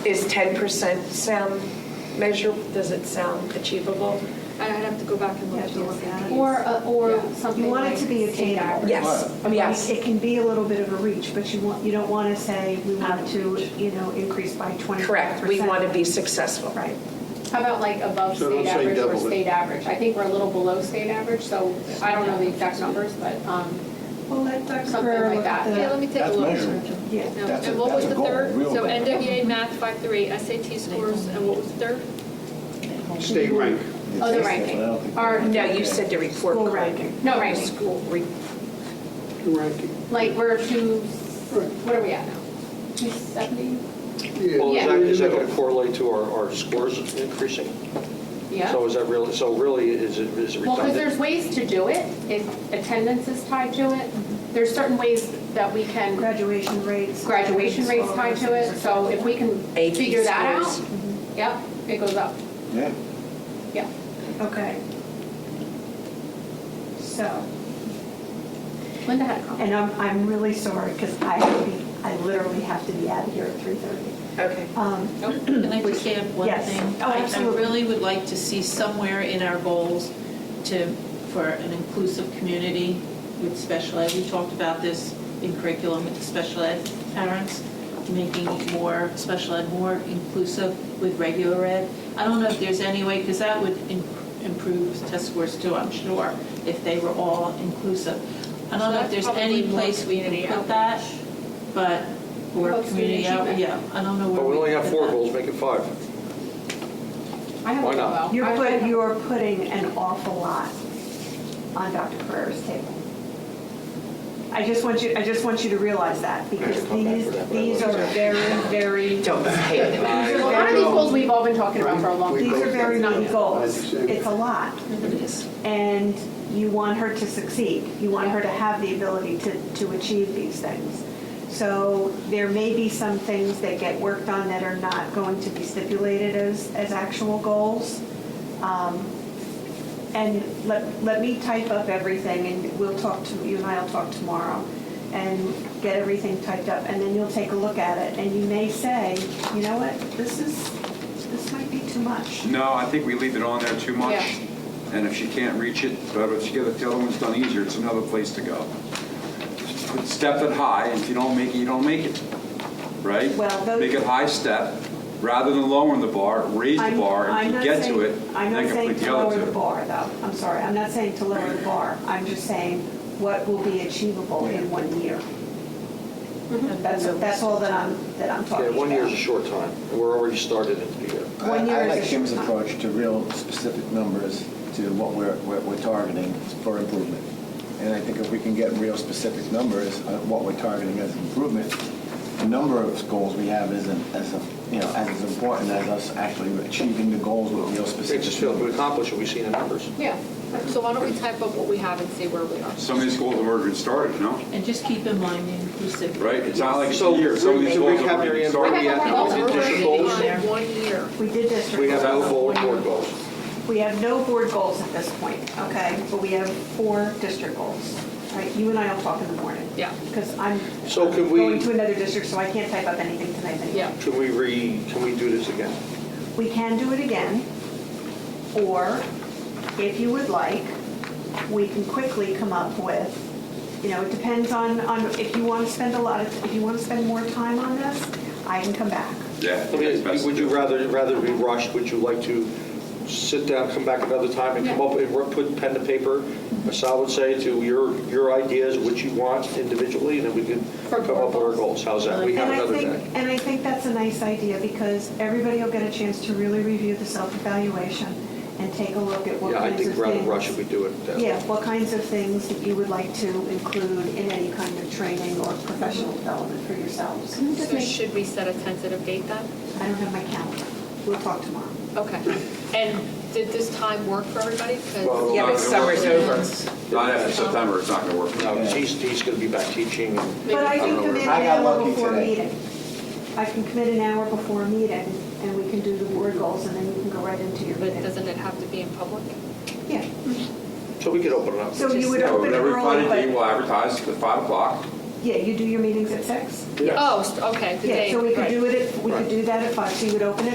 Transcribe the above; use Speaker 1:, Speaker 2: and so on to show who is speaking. Speaker 1: Is 10% sound measurable? Does it sound achievable?
Speaker 2: I'd have to go back and look at the ordinance.
Speaker 3: Or, a- or
Speaker 2: Yeah.
Speaker 3: something
Speaker 4: You want it to be
Speaker 3: like state
Speaker 4: attainable.
Speaker 3: average.
Speaker 4: I mean, It can be a little bit of a reach, but you want, you don't want to say, we want to, you know, increase by 25%.
Speaker 1: Correct, we want to be successful.
Speaker 4: Right.
Speaker 3: How about like above
Speaker 5: So
Speaker 3: state
Speaker 5: don't say
Speaker 3: average or
Speaker 5: double it.
Speaker 3: state average? I think we're a little below state average, so I don't know the exact numbers, but, um,
Speaker 4: Well, let Dr.
Speaker 3: Something
Speaker 4: Guerrero
Speaker 3: like
Speaker 4: look at
Speaker 3: that.
Speaker 2: Yeah,
Speaker 4: the-
Speaker 2: let me take a
Speaker 6: That's
Speaker 2: look.
Speaker 6: measurable.
Speaker 4: Yeah.
Speaker 2: No,
Speaker 6: That's a-
Speaker 2: And what was
Speaker 6: that's a
Speaker 2: the
Speaker 6: goal,
Speaker 2: third?
Speaker 6: real
Speaker 2: So
Speaker 6: goal.
Speaker 2: NWA math 5.3, SAT scores, and what was the third?
Speaker 5: State rank.
Speaker 3: oh, the
Speaker 6: That's-
Speaker 3: ranking.
Speaker 6: I don't think-
Speaker 3: Or,
Speaker 1: No, you said the report
Speaker 4: School
Speaker 1: card.
Speaker 4: ranking.
Speaker 3: no, ranking.
Speaker 1: School re-
Speaker 5: Ranking.
Speaker 3: Like we're two, what are we at now? 270?
Speaker 7: Well, is
Speaker 3: Yeah.
Speaker 7: that, is that going to correlate to our, our scores increasing?
Speaker 3: Yeah.
Speaker 7: So is that really, so really, is it, is it
Speaker 3: Well, because there's
Speaker 7: redundant?
Speaker 3: ways to do it, if attendance is tied to it,
Speaker 4: Mm-hmm.
Speaker 3: there's certain ways that we can,
Speaker 4: Graduation rates.
Speaker 3: graduation rates
Speaker 4: all
Speaker 3: tied
Speaker 4: those
Speaker 3: to it,
Speaker 4: things.
Speaker 3: so if we can
Speaker 1: AP
Speaker 3: figure that out,
Speaker 1: scores.
Speaker 3: yep, it goes up,
Speaker 6: Yeah.
Speaker 3: yep.
Speaker 4: Okay. So,
Speaker 3: Linda had a comment.
Speaker 4: and I'm, I'm really sorry because I have to be, I literally have to be out of here at 3:30.
Speaker 1: Okay.
Speaker 4: Um,
Speaker 8: Can I just add one
Speaker 4: Yes.
Speaker 8: thing?
Speaker 4: Oh,
Speaker 8: I-
Speaker 4: absolutely.
Speaker 8: I really would like to see somewhere in our goals to, for an inclusive community with special ed. We talked about this in curriculum with the special ed parents, making more, special ed more inclusive with regular ed. I don't know if there's any way, because that would im- improve test scores too, I'm sure, if they were all inclusive. I don't know if there's any place we can put that, but, or
Speaker 3: Well,
Speaker 8: community,
Speaker 3: community
Speaker 8: out-
Speaker 3: achievement.
Speaker 8: yeah, I don't know where.
Speaker 7: But we only
Speaker 8: could
Speaker 7: have
Speaker 8: put
Speaker 7: four
Speaker 8: that.
Speaker 7: goals, make it five.
Speaker 3: I have a
Speaker 7: Why not?
Speaker 3: well.
Speaker 4: You're
Speaker 3: I-
Speaker 4: put, you're putting an awful lot on Dr. Carrera's table. I just want you, I just want you to realize that, because these, these are very, very, these
Speaker 1: Don't hate them.
Speaker 4: are
Speaker 3: A lot of these
Speaker 4: very,
Speaker 3: goals we've all been talking about for a long time.
Speaker 4: these are very big goals.
Speaker 5: Not-
Speaker 4: It's a lot. And you want her to succeed. You want her to have the ability to, to achieve these things. So there may be some things that get worked on that are not going to be stipulated as, as actual goals. Um, And let, let me type up everything and we'll talk to, you and I'll talk tomorrow and get everything typed up and then you'll take a look at it and you may say, you know what, this is, this might be too much.
Speaker 9: No, I think we leave it on there too much.
Speaker 3: Yeah.
Speaker 9: And if she can't reach it, but if she gets the other one's done easier, it's another place to go. Just Step it high, and if you don't make it, you don't make it, right?
Speaker 4: Well, those-
Speaker 9: Make it high step, rather than lowering the bar, raise the
Speaker 4: I'm- I'm
Speaker 9: bar, and if
Speaker 4: not
Speaker 9: you get to
Speaker 4: saying-
Speaker 9: it, then you can put the
Speaker 4: I'm not saying to
Speaker 9: other
Speaker 4: lower the
Speaker 9: two.
Speaker 4: bar, though. I'm sorry, I'm not saying to lower the bar. I'm just saying what will be achievable in one year. That's, that's all that I'm, that I'm talking
Speaker 7: Mm-hmm. Yeah,
Speaker 4: about.
Speaker 7: one year's a short time, and we're already started into the uh, year.
Speaker 4: One
Speaker 6: I-
Speaker 4: year
Speaker 6: I
Speaker 4: is
Speaker 6: like
Speaker 4: a
Speaker 6: Jim's
Speaker 4: short time.
Speaker 6: approach to real specific numbers to what we're, we're we're targeting for improvement. And I think if we can get real specific numbers on what we're targeting as improvement, the number of goals we have isn't as, you know, as important as us actually achieving the goals with real
Speaker 7: They
Speaker 6: specific
Speaker 7: just feel we
Speaker 6: numbers.
Speaker 7: accomplished what we see in the numbers.
Speaker 2: Yeah. So why don't we type up what we have and see where we are?
Speaker 9: Some of these goals have already been started, you know,
Speaker 8: And just keep in mind the inclusive.
Speaker 9: right? It's not like it's
Speaker 7: So,
Speaker 9: a year, some of these
Speaker 7: to
Speaker 9: goals have
Speaker 7: recap,
Speaker 9: already
Speaker 7: Mary
Speaker 9: been
Speaker 7: Ann,
Speaker 9: started.
Speaker 7: we have no
Speaker 2: Well, we're
Speaker 7: district
Speaker 2: working
Speaker 7: goals,
Speaker 2: on one year.
Speaker 4: We did district.
Speaker 7: we have no
Speaker 4: goals.
Speaker 7: goal, board goals.
Speaker 4: We have no board goals at this point, okay?
Speaker 7: Mm-hmm.
Speaker 4: But we have four district goals. All right, you and I will talk in the morning.
Speaker 2: Yeah.
Speaker 4: Because I'm
Speaker 7: So could we-
Speaker 4: going to another district, so I can't type up anything tonight anyway.
Speaker 2: Yeah.
Speaker 7: Can we re, can we do this again?
Speaker 4: We can do it again, or if you would like, we can quickly come up with, you know, it depends on, on if you want to spend a lot of, if you want to spend more time on this, I can come back.
Speaker 9: Yeah.
Speaker 7: I mean, would you rather, rather be rushed, would you like to sit down, come back another time and come
Speaker 3: Yeah.
Speaker 7: up and work- put pen to paper, as Sal would say, to your, your ideas, what you want individually, and then we can
Speaker 3: For
Speaker 7: come up with our goals, how's that? We have
Speaker 4: And I
Speaker 7: another
Speaker 4: think,
Speaker 7: day.
Speaker 4: and I think that's a nice idea, because everybody will get a chance to really review the self-evaluation and take a look at what
Speaker 7: Yeah, I
Speaker 4: kinds of things.
Speaker 7: think rather rush if we do it that way.
Speaker 4: Yeah, what kinds of things that you would like to include in any kind of training or professional development for yourselves.
Speaker 2: So should we set a tentative date then?
Speaker 4: I don't have my calendar. We'll talk tomorrow.
Speaker 2: Okay. And did this time work for everybody? 'Cause-
Speaker 7: Well,
Speaker 1: Yeah, but summer's over.
Speaker 9: Not after September, it's not going to work.
Speaker 7: No, 'cause he's, he's going to be back teaching.
Speaker 2: Maybe-
Speaker 4: But I can
Speaker 7: I don't know
Speaker 4: commit
Speaker 6: where-
Speaker 4: an
Speaker 6: I got
Speaker 4: hour
Speaker 6: lucky
Speaker 4: before a
Speaker 6: today.
Speaker 4: meeting. I can commit an hour before a meeting, and we can do the board goals, and then you can go right into your
Speaker 2: But
Speaker 4: meeting.
Speaker 2: doesn't it have to be in public?
Speaker 4: Yeah,
Speaker 7: So we could open it up.
Speaker 4: so you would
Speaker 9: No,
Speaker 4: open it
Speaker 9: Every
Speaker 4: early,
Speaker 9: Friday,
Speaker 4: but,
Speaker 9: we'll advertise at 5 o'clock,
Speaker 4: Yeah, you do your meetings at six?
Speaker 3: Oh, st- okay, the
Speaker 4: Yeah,
Speaker 3: day.
Speaker 4: so we could
Speaker 3: right.
Speaker 4: do it, at- we could do that at five, so you would open it